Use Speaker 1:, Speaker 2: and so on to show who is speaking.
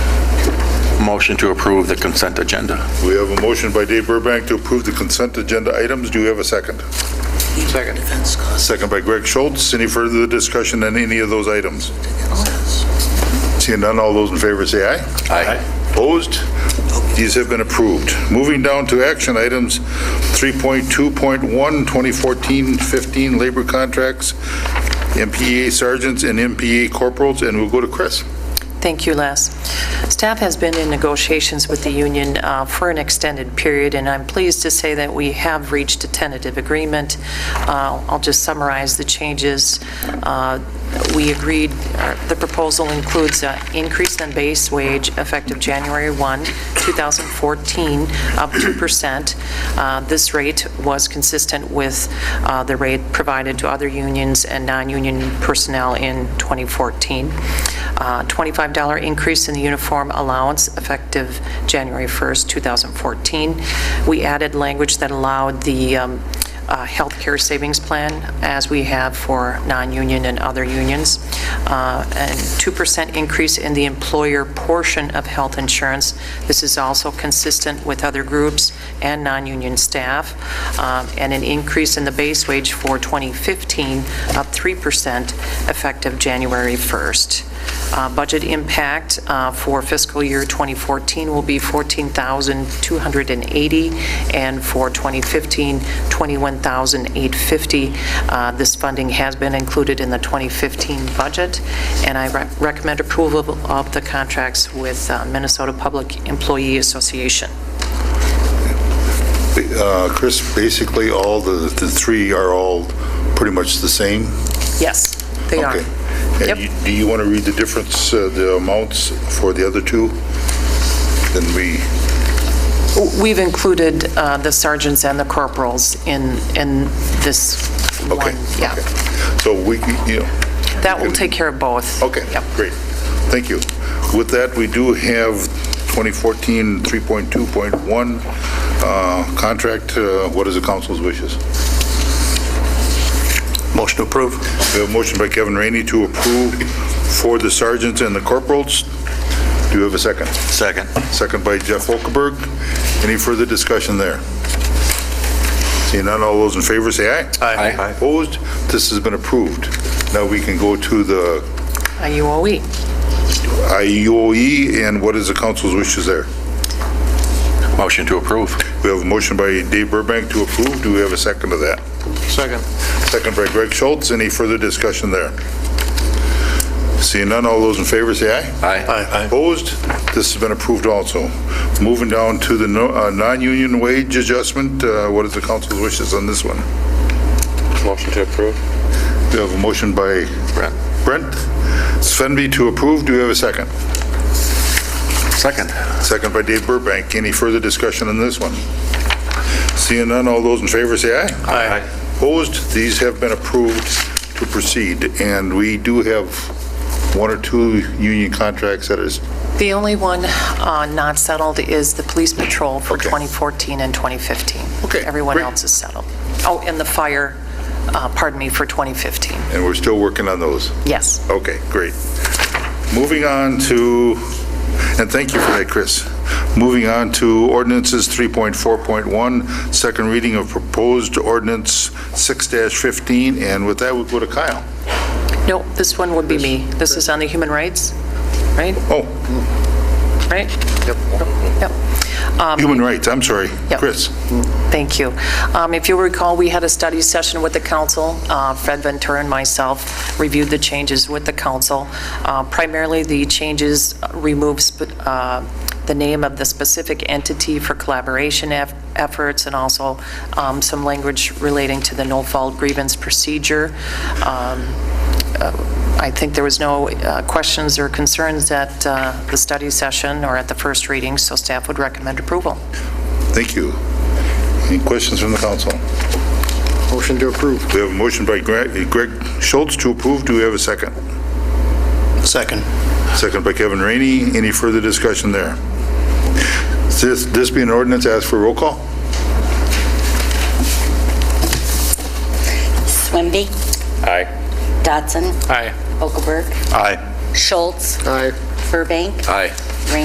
Speaker 1: Motion to approve the consent agenda.
Speaker 2: We have a motion by Dave Burbank to approve the consent agenda items. Do we have a second?
Speaker 3: Second. Defense costs.
Speaker 2: Second by Greg Schultz. Any further discussion on any of those items? Seeing none, all those in favor say aye.
Speaker 1: Aye.
Speaker 2: Opposed? These have been approved. Moving down to action items 3.2.1, 2014-15 labor contracts, MPA sergeants and MPA corporals, and we'll go to Chris.
Speaker 4: Thank you, Les. Staff has been in negotiations with the union uh, for an extended period, and I'm pleased to say that we have reached a tentative agreement. Uh, I'll just summarize the changes. Uh, We agreed, uh, the proposal includes an increase in base wage effective January 1, 2014, up 2%. Uh, This rate was consistent with uh, the rate provided to other unions and non-union personnel in 2014. Uh, $25 increase in the uniform allowance effective January 1st, 2014. We added language that allowed the um, uh, healthcare savings plan, as we have for non-union and other unions, uh, and 2% increase in the employer portion of health insurance. This is also consistent with other groups and non-union staff, um, and an increase in the base wage for 2015, up 3%, effective January 1st. Uh, Budget impact uh, for fiscal year 2014 will be 14,280, and for 2015, 21,850. Uh, This funding has been included in the 2015 budget, and I rec- recommend approval of the contracts with uh, Minnesota Public Employee Association.
Speaker 2: Uh, Chris, basically, all the, the three are all pretty much the same?
Speaker 4: Yes, they are.
Speaker 2: Okay. And
Speaker 4: Yep.
Speaker 2: you- Do you want to read the difference, uh, the amounts for the other two? Then we,
Speaker 4: We've included uh, the sergeants and the corporals in, in this
Speaker 2: okay.
Speaker 4: one. Yeah.
Speaker 2: okay. So we, you know.
Speaker 4: That will take care of both.
Speaker 2: Okay,
Speaker 4: Yep.
Speaker 2: great. Thank you. With that, we do have 2014 3.2.1 uh, contract. Uh, What is the council's wishes?
Speaker 3: Motion to approve.
Speaker 2: We have a motion by Kevin Rainey to approve for the sergeants and the corporals. Do you have a second?
Speaker 1: Second.
Speaker 2: Second by Jeff Okaberg. Any further discussion there? Seeing none, all those in favor say aye.
Speaker 1: Aye. Aye.
Speaker 2: Opposed? This has been approved. Now we can go to the
Speaker 4: IUOE.
Speaker 2: IUOE, E and what is the council's wishes there?
Speaker 1: Motion to approve.
Speaker 2: We have a motion by Dave Burbank to approve. Do we have a second to that?
Speaker 3: Second.
Speaker 2: Second by Greg Schultz. Any further discussion there? Seeing none, all those in favor say aye.
Speaker 1: Aye.
Speaker 2: Opposed? This has been approved also. Moving down to the no- uh, non-union wage adjustment, uh, what is the council's wishes on this one?
Speaker 5: Motion to approve.
Speaker 2: We have a motion by
Speaker 1: Brent.
Speaker 2: Brent Svenby to approve. Do we have a second?
Speaker 1: Second.
Speaker 2: Second by Dave Burbank. Any further discussion on this one? Seeing none, all those in favor say aye.
Speaker 3: Aye.
Speaker 2: Opposed, these have been approved to proceed, and we do have one or two union contracts that is,
Speaker 4: The only one uh, not settled is the police patrol for
Speaker 2: Okay.
Speaker 4: 2014 and 2015.
Speaker 2: Okay,
Speaker 4: Everyone
Speaker 2: great.
Speaker 4: else is settled. Oh, and the fire, uh, pardon me, for 2015.
Speaker 2: and we're still working on those.
Speaker 4: Yes.
Speaker 2: Okay, great. Moving on to, and thank you for that, Chris. Moving on to ordinances 3.4.1, second reading of proposed ordinance 6-15, and with that, we go to Kyle.
Speaker 4: No, this one would be me. This is on the human rights, right?
Speaker 2: Oh,
Speaker 4: Right? Yep. Yep.
Speaker 2: human rights, I'm sorry.
Speaker 4: Yep.
Speaker 2: Chris?
Speaker 4: Thank you. Um, If you'll recall, we had a study session with the council. Uh, Fred Ventura and myself reviewed the changes with the council. Uh, Primarily, the changes remove sp- uh, the name of the specific entity for collaboration eff- efforts and also um, some language relating to the no-fault grievance procedure. Um, I think there was no uh, questions or concerns at uh, the study session or at the first reading, so staff would recommend approval.
Speaker 2: Thank you. Any questions from the council?
Speaker 3: Motion to approve.
Speaker 2: We have a motion by Greg Greg Schultz to approve. Do we have a second?
Speaker 3: Second.
Speaker 2: Second by Kevin Rainey. Any further discussion there? This this being an ordinance, ask for roll call?
Speaker 6: Swinby,
Speaker 5: Aye.
Speaker 6: Dotson,
Speaker 5: Aye.
Speaker 6: Okaberg,
Speaker 2: Aye.
Speaker 6: Schultz,
Speaker 3: Aye.
Speaker 6: Burbank,
Speaker 1: Aye.